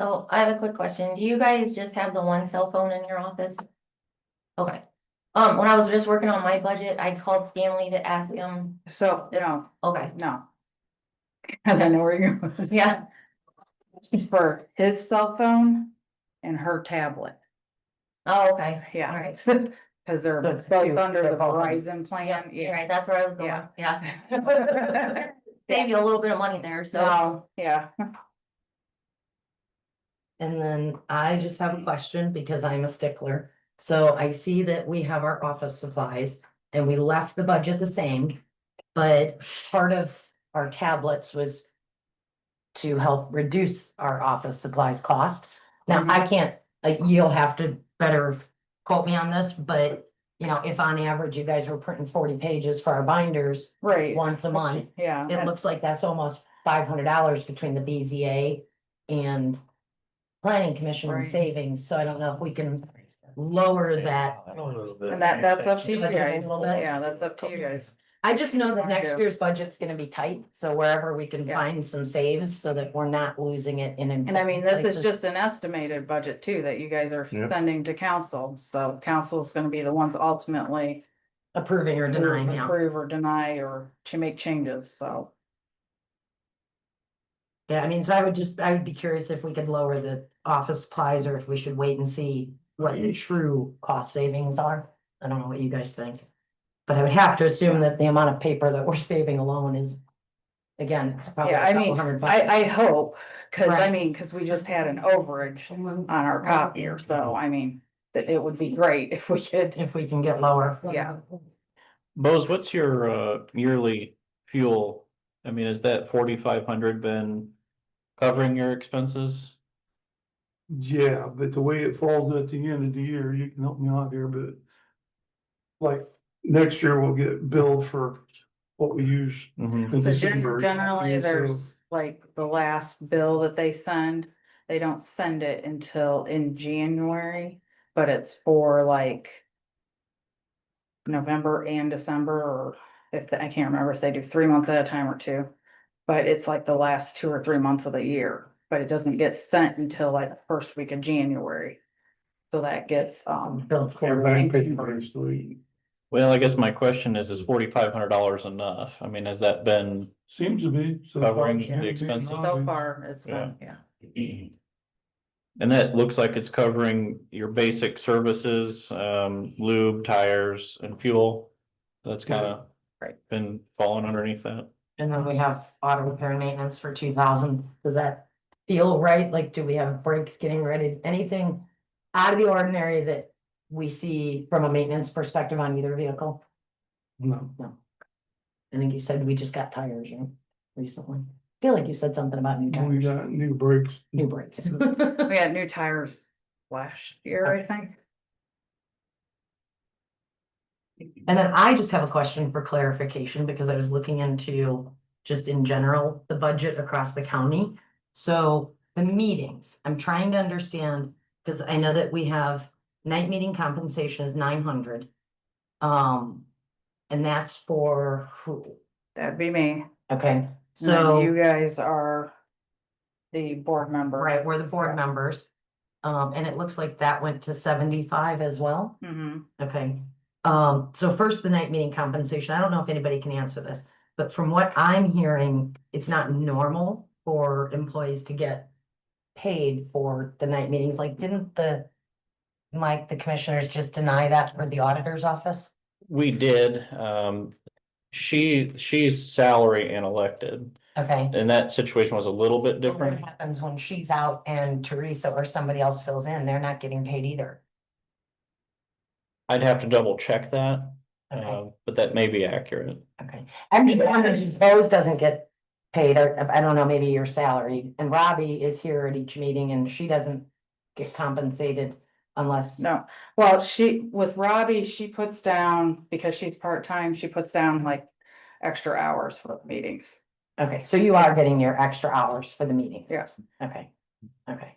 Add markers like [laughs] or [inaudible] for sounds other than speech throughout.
So I have a quick question. Do you guys just have the one cell phone in your office? Okay. Um, when I was just working on my budget, I called Stanley to ask him, So, no, okay, no. [laughs] Cause I know where you're, going. yeah, it's for his cell phone and her tablet, oh, okay. All yeah. right. [laughs] Cause they're So it's both two, under they're the both on. Verizon Yeah, plan, you're yeah. right, that's where I was going, Yeah. yeah. [laughs] Save you a little bit of money there, so. So, yeah, And then I just have a question because I'm a stickler. So I see that we have our office supplies and we left the budget the same. But part of our tablets was to help reduce our office supplies cost. Now, I can't, like, you'll have to better quote me on this, but you know, if on average you guys were printing forty pages for our binders right, once a month, yeah. it looks like that's almost five hundred dollars between the BZA and planning commission and Right. savings, so I don't know if we can lower that. And that, that's up to you But guys, a little bit. yeah, that's up to you guys. I just know that next Yeah. year's budget's gonna be tight, so wherever we can Yeah. find some saves so that we're not losing it in. And I mean, this is places. just an estimated budget too, that you guys are Yeah. sending to council, so council's gonna be the ones ultimately. Approving or denying, yeah, Approve or deny or to make changes, so. yeah, I mean, so I would just, I would be curious if we could lower the office supplies or if we should wait and see what the true cost savings are. I don't know what you guys think. But I would have to assume that the amount of paper that we're saving alone is, again, it's probably Yeah, I a couple mean, hundred I, bucks. I hope, cause I Right. mean, cause we just had an overage on our copier, so I mean, that it would be great if we could. If we can get lower. Yeah. Bose, what's your uh yearly fuel? I mean, is that forty-five hundred been covering your expenses? Yeah, but the way it falls at the end of the year, you can help me out here, but. Like, next year we'll get billed for what we use Mhm. in So December. gen- generally, Yeah, so- there's like the last bill that they send, they don't send it until in January, but it's for like. November and December, or if, I can't remember if they do three months at a time or two. But it's like the last two or three months of the year, but it doesn't get sent until like the first week of January. So that gets, um, Bill Everybody quarterly. pays for it, so we- Well, I guess my question is, is forty-five hundred dollars enough? I mean, has that been? Seems to be. so far. Covering the Seems to be expenses. so nothing. far, it's, been- yeah. And that looks like it's covering your basic services, um lube, tires and fuel. That's kind of. Right. Been falling underneath that. And then we have auto repair and maintenance for two thousand. Does that feel right? Like, do we have brakes getting ready? Anything out of the ordinary that we see from a maintenance perspective on either vehicle? No, I think you said we just got tires, you know, recently. I Feel like you said something about new we tires, got new brakes. new brakes. [laughs] We had new tires last year, I think. And then I just have a question for clarification because I was looking into just in general, the budget across the county. So the meetings, I'm trying to understand, because I know that we have night meeting compensation is nine hundred. Um, and that's for who? That'd be me. Okay, And then so, You guys are the board member. right, we're the board Yeah. members. Um, and it looks like that went to seventy-five as well. Mhm. Okay, um, so first, the night meeting compensation, I don't know if anybody can answer this, but from what I'm hearing, it's not normal for employees to get. Paid for the night meetings, like, didn't the, Mike, the commissioners just deny that for the auditor's office? We did, um, she, she's salary and elected. Okay. And that situation was a little bit But What different. happens when she's out and Teresa or somebody else fills in, they're not getting paid either. I'd have to double check that, Okay, um, but that may be accurate. okay, I'm just wondering if Rose doesn't get paid, or I don't know, maybe your salary, and Robbie is here at each meeting and she doesn't. Get compensated unless. No, well, she, with Robbie, she puts down, because she's part-time, she puts down like extra hours for meetings. Okay, so you are getting your extra hours for the meetings? Yeah. Okay, okay.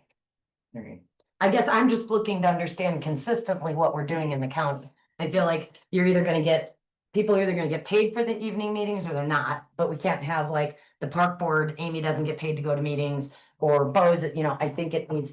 All right. I guess I'm just looking to understand consistently what we're doing in the county. I feel like you're either gonna get, people are either gonna get paid for the evening meetings or they're not, but we can't have like the park board, Amy doesn't get paid to go to meetings. or Bose, you know, I think it needs